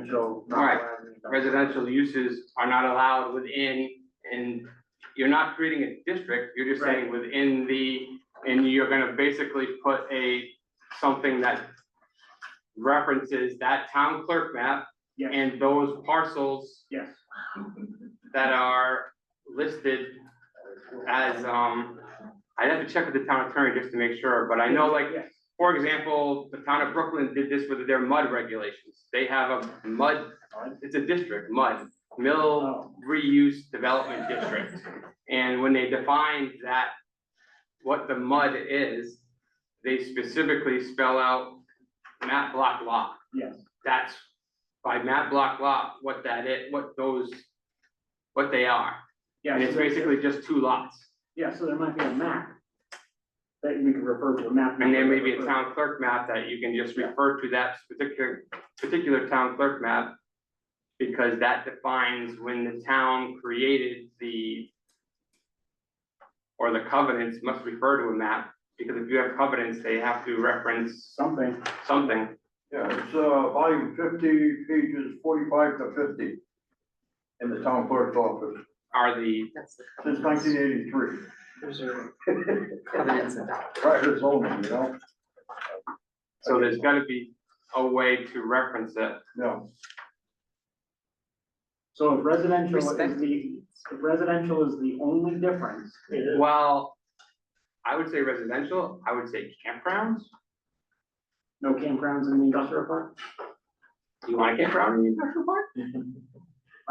residential. All right. residential uses are not allowed within, and you're not creating a district, you're just saying within the, and you're gonna basically put a, something that references that town clerk map Yes, and those parcels yes. that are listed as, um, I'd have to check with the town attorney just to make sure, but I know like Yes. for example, the town of Brooklyn did this with their mud regulations. They have a mud, it's a district, mud, Oh. mill reuse development district. And when they defined that, what the mud is, they specifically spell out map block lot. Yes, That's by map block lot, what that is, what those, what they are. yeah. And so it's there- basically just two lots. Yeah, so there might be a map that we can refer to, a map. And there may be a town clerk map that you can just refer to that particular, particular town clerk map. Because that defines when the town created the. Or the covenants must refer to a map, because if you have covenants, they have to reference Something, something. Yeah, it's, uh, volume fifty, pages forty-five to fifty in the town clerk's office, Are the, That's the since covenants. nineteen eighty-three. Those are covenants and documents. Private zoning, you know? so there's gotta be a way to reference it. Yeah, so if residential is Respect. the, if residential is the only difference, Well, I would say residential, I would say campgrounds. no campgrounds in the industrial park, Do you want a campground in the industrial park?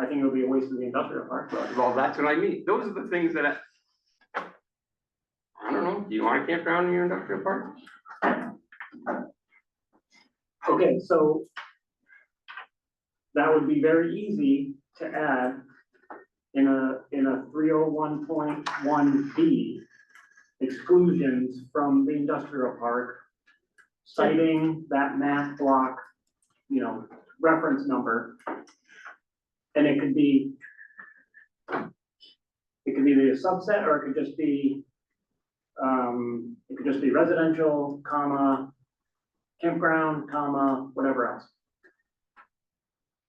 I think it would be a waste of the industrial park, but. Well, that's what I mean. Those are the things that I. I don't know. Do you want a campground in your industrial park? Okay, so that would be very easy to add in a, in a three oh one point one B exclusions from the industrial park, citing that math block, you know, reference number. And it could be it could be a subset or it could just be um, it could just be residential, comma, campground, comma, whatever else.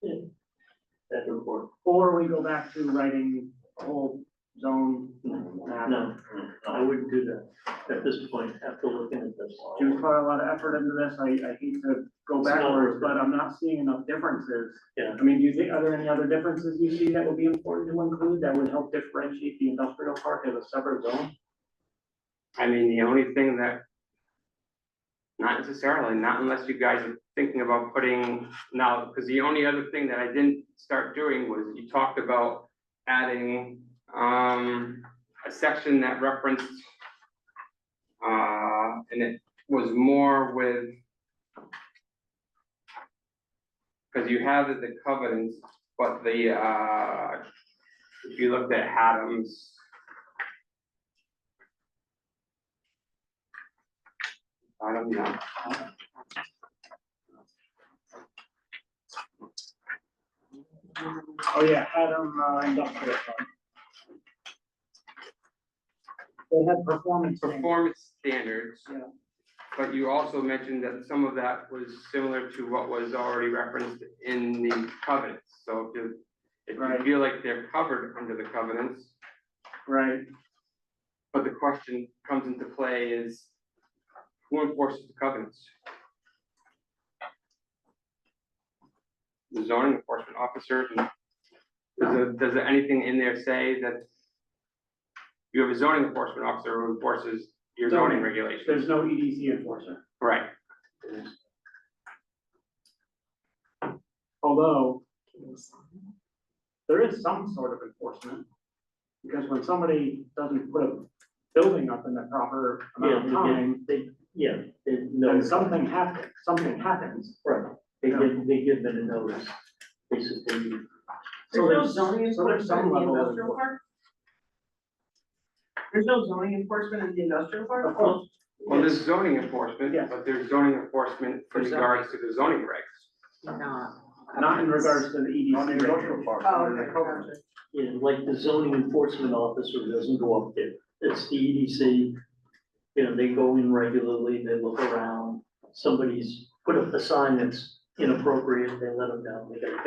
That's important. Or we go back to writing a whole zone map. No, I wouldn't do that at this point after looking at this. Jim's put a lot of effort into this, I, I hate to go It's not backwards, worth but I'm not seeing enough differences. Yeah. I mean, do you think, are there any other differences you see that would be important to include that would help differentiate the industrial park as a separate zone? I mean, the only thing that. Not necessarily, not unless you guys are thinking about putting now, because the only other thing that I didn't start doing was you talked about adding um a section that referenced. Uh, and it was more with. Because you have the covenants, but the uh, if you looked at Adams. I don't know. Mm. Oh, yeah, Adam, uh, industrial park. They had performance. standards. performance standards. Yeah. But you also mentioned that some of that was similar to what was already referenced in the covenants, so if you, if Right. you feel like they're covered under the covenants, Right, but the question comes into play is, who enforces the covenants? The zoning enforcement officer, and does, it- does anything in there say that you have a zoning enforcement officer who enforces your zoning Zoning. regulations? there's no EDC enforcer. Right, Although there is some sort of enforcement. Because when somebody doesn't put a building up in the proper amount of Yeah, yeah. time, They, yeah, they, no, then something happens, something happens. right, they give, they give them a notice, basically. So There's no there's, zoning so there's enforcement some in the level of industrial park? There's no zoning enforcement in the industrial park? of course, well, there's zoning enforcement, Yes. but there's zoning enforcement in For zoning. regards to the zoning regs. Not. not in regards to the E not EDC. in the regulation. industrial park, Oh, not in okay, the covenant. gotcha. Yeah, like the zoning enforcement officer doesn't go up there, it's the E EDC. You know, they go in regularly, they look around, somebody's put up a sign that's inappropriate, they let them down, they got